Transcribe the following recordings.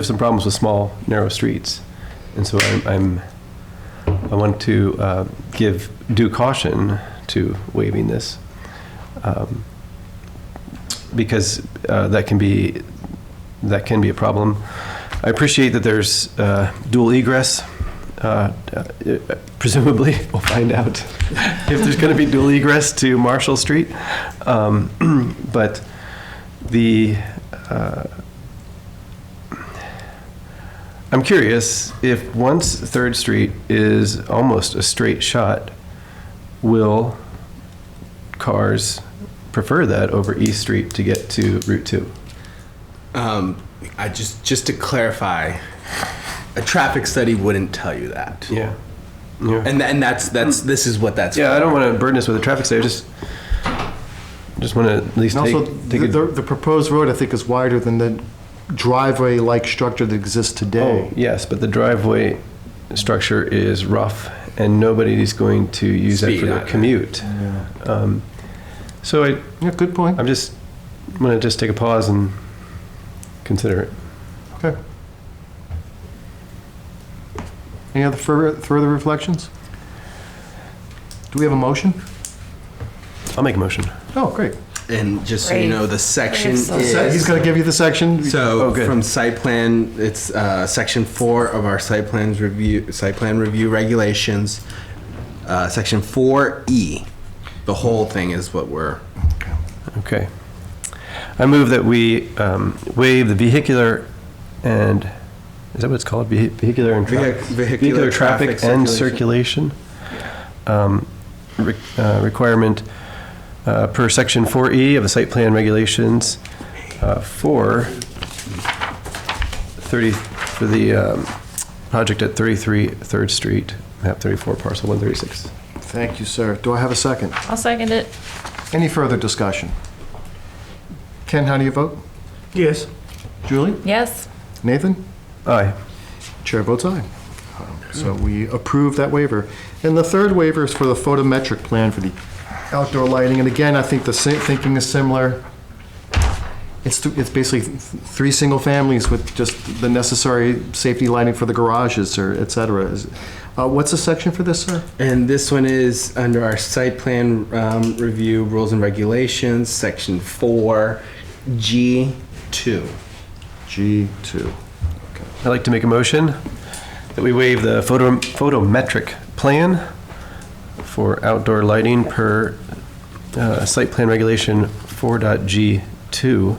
have some problems with small, narrow streets. And so I'm- I'm, I want to uh, give due caution to waiving this. um, Because uh, that can be, that can be a problem. I appreciate that there's uh, dual egress. uh, uh, Presumably, we'll find out if there's going to be dual egress to Marshall Street. Um, But the, I'm curious if once Third Street is almost a straight shot, will cars prefer that over East Street to get to Route Two? Um, I just just to clarify, a traffic study wouldn't tell you that. Yeah. Yeah. And and that's that's this is what that's. Yeah, I don't want to burden us with a traffic study. I just just want to at least And also, take, take the, the a, the proposed road, I think, is wider than the driveway-like structure that exists oh today. yes, but the driveway structure is rough, and nobody's going to use that for Speed their on it. commute. Um, Yeah, So Oh. I, Yeah, good point. I'm just I'm going to just take a pause and consider it. Okay. Any other further, further reflections? Do we have a motion? I'll make a motion. Oh, great. And just so you know, the section Brave soldier. is. So He's gonna give you the section. So Oh, good. from site plan, it's uh, section four of our site plans review site plan review regulations. Uh, section four E, the whole thing is what we're. Okay. I move that we um, waive the vehicular and, is that what it's called? Vehi- Vehicular and traffic? Vehic- vehicular traffic and circulation um, re- uh, requirement uh, per section 4E of the site plan regulations uh, for 30, for the um, project at 33 Third Street, map 34, parcel 136. Thank you, sir. Do I have a second? I'll second it. Any further discussion? Ken, how do you vote? Yes. Julie? Yes. Nathan? Aye. Chair votes aye. Um, So we approve that waiver. And the third waiver is for the photometric plan for the outdoor lighting. And again, I think the sa- thinking is similar. It's, th- it's basically th- three single families with just the necessary safety lighting for the garages or et cetera. Is- uh, What's the section for this, sir? And this one is under our site plan um, review rules and regulations, section four, G two. G2. I'd like to make a motion that we waive the photo photometric plan for outdoor lighting per uh, site plan regulation 4.G2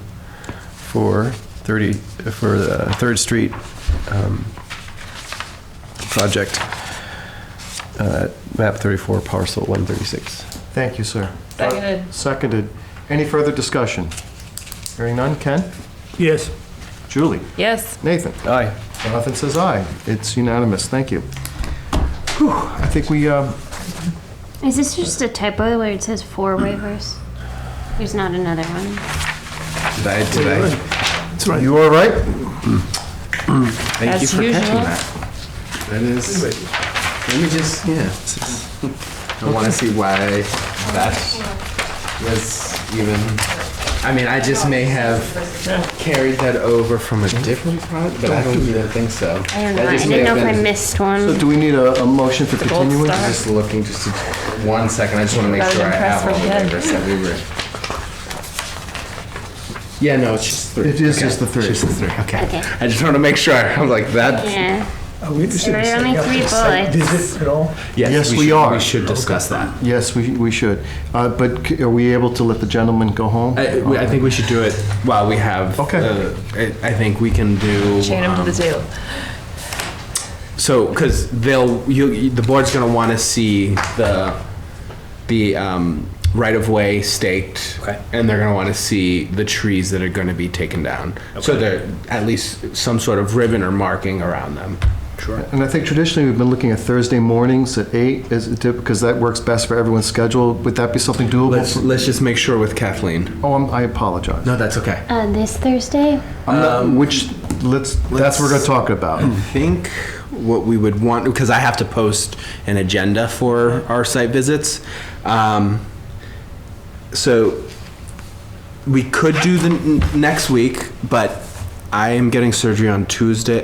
for 30, for the Third Street um, project, uh, map 34, parcel 136. Thank you, sir. Seconded. Seconded. Any further discussion? Hearing none. Ken? Yes. Julie? Yes. Nathan? Aye. Jonathan says aye. It's unanimous. Thank you. Whew, I think we, uh, Is this just a typo where it says four waivers? There's not another one. Did I, did I you all right? Thank you As for catching usual. that. That is. Let me just yeah. I want to see why that was even. I mean, I just may have carried that over from a different product, but I don't even think so. I don't know. That I just didn't may know have if I been- missed So one. do we need a, a motion for gold continuance? star. Just looking, just a- one second. I just want to make Rather sure I than press have all from the the end. waivers that we were. Yeah, no, it's just three. It is Okay. just the three. Just the three. Okay. Okay. I just want to make sure. I'm like that. Yeah. Are we interested in There are setting only up three a site bullets. visit at all? Yes, we should- are. We should discuss that. Yes, we, we should. Uh, but c- are we able to let the gentleman go home? I, we- I think we should do it while we have. Okay. uh, I, I think we can do. Chain them to the um, table. So, because they'll, you, you- the board's gonna want to see the, the um, right of way staked. Okay. And they're gonna want to see the trees that are gonna be taken down. So there, at least some sort of ribbon or marking around them. Sure. And I think traditionally, we've been looking at Thursday mornings at eight, is it, typ- because that works best for everyone's schedule. Would that be something Let's, doable? for- let's just make sure with Kathleen. Oh, I'm- I apologize. No, that's okay. Uh, this Thursday? I'm not- Um, Which, let's, that's what we're gonna talk about. I think what we would want, because I have to post an agenda for our site visits. Um, so we could do the n- next week, but I am getting surgery on Tuesday